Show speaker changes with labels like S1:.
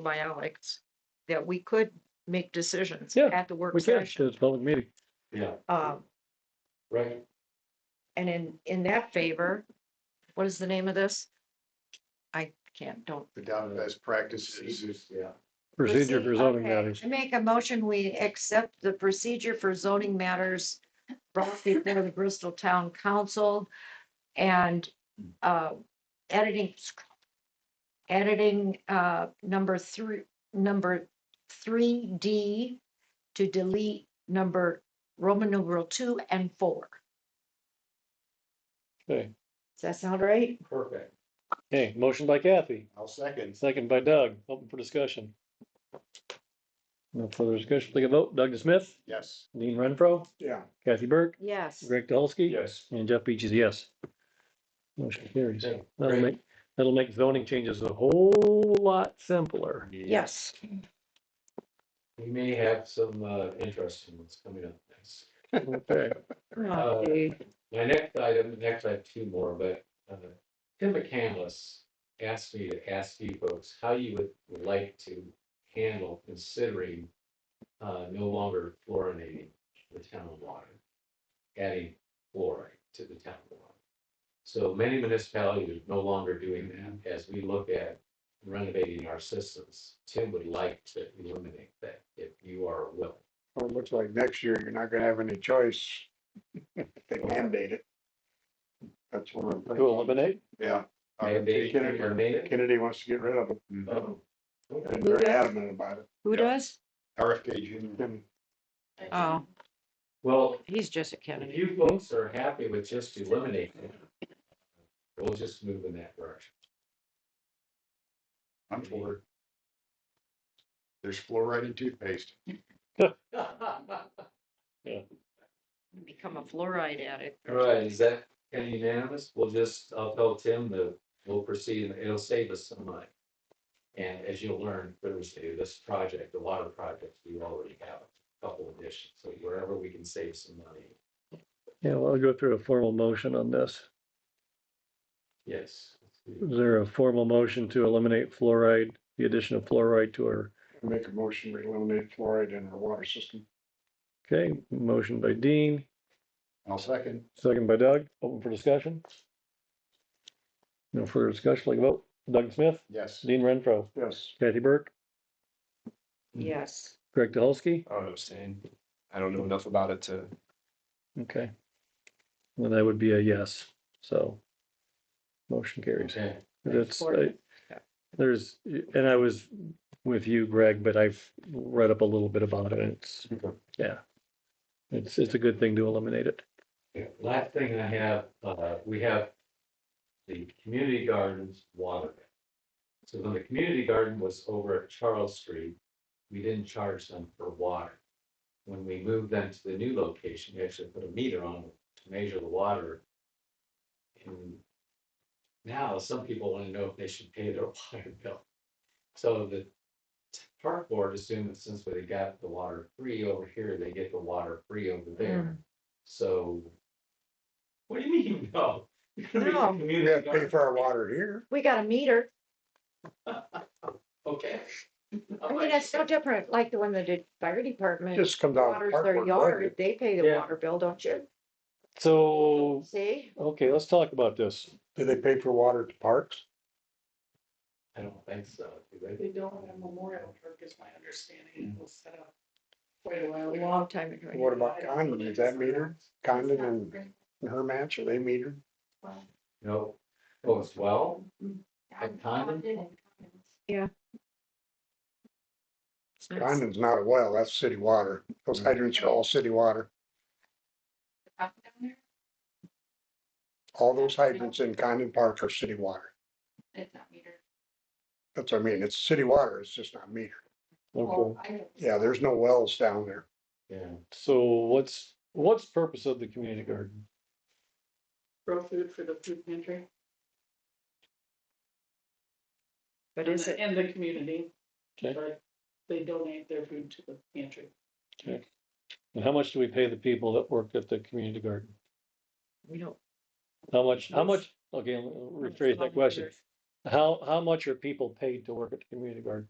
S1: by Alex, that we could make decisions
S2: Yeah,
S1: at the work
S2: We can,
S1: session.
S2: it's a public meeting.
S3: Yeah,
S1: Um,
S3: right.
S1: and in, in that favor, what is the name of this? I can't, don't.
S4: adopt best practices.
S3: Yeah.
S2: Procedure for zoning
S1: Okay.
S2: matters.
S1: I make a motion, we accept the procedure for zoning matters brought before the Bristol Town Council and uh, editing, editing uh, number three, number three D to delete number Roman numeral two and four.
S2: Okay,
S1: Does that sound right?
S3: Perfect.
S2: okay, motion by Kathy,
S4: I'll second.
S2: second by Doug, open for discussion. No further discussion, take a vote, Doug Smith,
S4: Yes.
S2: Dean Renfro,
S4: Yeah.
S2: Kathy Burke,
S1: Yes.
S2: Greg Dolsky.
S3: Yes.
S2: And Jeff Beach is a yes. Motion carries.
S3: Yeah,
S2: That'll
S3: great.
S2: make, that'll make zoning changes a whole lot simpler.
S1: Yes.
S3: We may have some uh interesting ones coming up next.
S2: Okay,
S1: Uh, Okay.
S3: My next item, next I have two more, but uh Tim McCandless asked me to ask you folks how you would like to handle considering uh no longer fluorinating the town water, adding fluoride to the town water. So many municipalities are no longer doing that. As we look at renovating our systems, Tim would like to eliminate that if you are willing.
S4: Well, it looks like next year you're not gonna have any choice. They mandate it. That's one of the.
S2: to eliminate,
S4: Yeah. Uh,
S3: Mandate,
S4: Kennedy-
S3: mandate.
S4: Kennedy wants to get rid of it.
S3: Oh, okay.
S4: And They're adamant about it.
S1: Who does?
S4: RFK Junior.
S1: Oh,
S3: Well,
S1: he's just a
S3: if
S1: Kennedy.
S3: you folks are happy with just eliminating it, we'll just move in that direction.
S4: I'm for it. There's fluoride in toothpaste.
S1: Become a fluoride addict.
S3: All right, is that unanimous? We'll just, I'll tell Tim that we'll proceed, and it'll save us some money. And as you'll learn Thursday, this project, the water project, we already have a couple additions, so wherever we can save some money,
S2: yeah, well, I'll go through a formal motion on this.
S3: yes.
S2: Is there a formal motion to eliminate fluoride, the addition of fluoride to our
S4: Make a motion, we eliminate fluoride in our water system.
S2: Okay, motion by Dean,
S4: I'll second.
S2: second by Doug, open for discussion. No further discussion, like vote, Doug Smith,
S4: Yes.
S2: Dean Renfro,
S4: Yes.
S2: Kathy Burke,
S4: Mm-hmm.
S1: Yes.
S2: Greg DeHolsky,
S5: I don't understand. I don't know enough about it to.
S2: okay. And that would be a yes, so. Motion carries.
S3: Okay.
S2: That's,
S1: Important.
S2: I- there's, and I was with you, Greg, but I've read up a little bit about it, and it's,
S3: Okay.
S2: yeah. It's, it's a good thing to eliminate it.
S3: Yeah, Last thing I have, uh, we have the community gardens water. So when the community garden was over at Charles Street, we didn't charge them for water. When we moved them to the new location, we actually put a meter on it to measure the water. And now some people want to know if they should pay their water bill. So the park board assumed that since they got the water free over here, they get the water free over there. So. What do you mean, no? You're gonna make the
S1: No.
S4: We
S3: community
S4: have to pay
S3: garden-
S4: for our water here.
S1: We got a meter.
S3: Okay.
S1: I mean, that's no different, like the one that did fire department,
S4: Just comes out. of
S1: waters their
S4: cardboard
S1: yard,
S4: budget.
S1: they pay the
S3: Yeah.
S1: water bill, don't you?
S2: So,
S1: See?
S2: okay, let's talk about this.
S4: Do they pay for water at the parks?
S3: I don't think so. do
S6: They
S3: they?
S6: don't have Memorial Park is my understanding. It was set up quite a
S1: A
S6: while ago.
S1: long time ago.
S4: What about Condon? Is that metered? Condon and her match, are they metered?
S3: No. Oh, it's well, At Condon?
S4: Condon's not a well, that's city water. Those hydrants are all city water. All those hydrants in Condon Park are city water.
S6: It's not metered.
S4: That's what I mean, it's city water, it's just not metered.
S6: Oh,
S2: Okay,
S4: Yeah, there's no wells down there.
S3: yeah.
S2: so what's, what's the purpose of the community garden?
S6: Grow food for the food pantry.
S1: But is it,
S6: And the community.
S2: Okay.
S6: Like, They donate their food to the pantry.
S2: And how much do we pay the people that work at the community garden?
S1: we don't.
S2: How much, how much, okay, rephrase that question. How, how much are people paid to work at the community garden?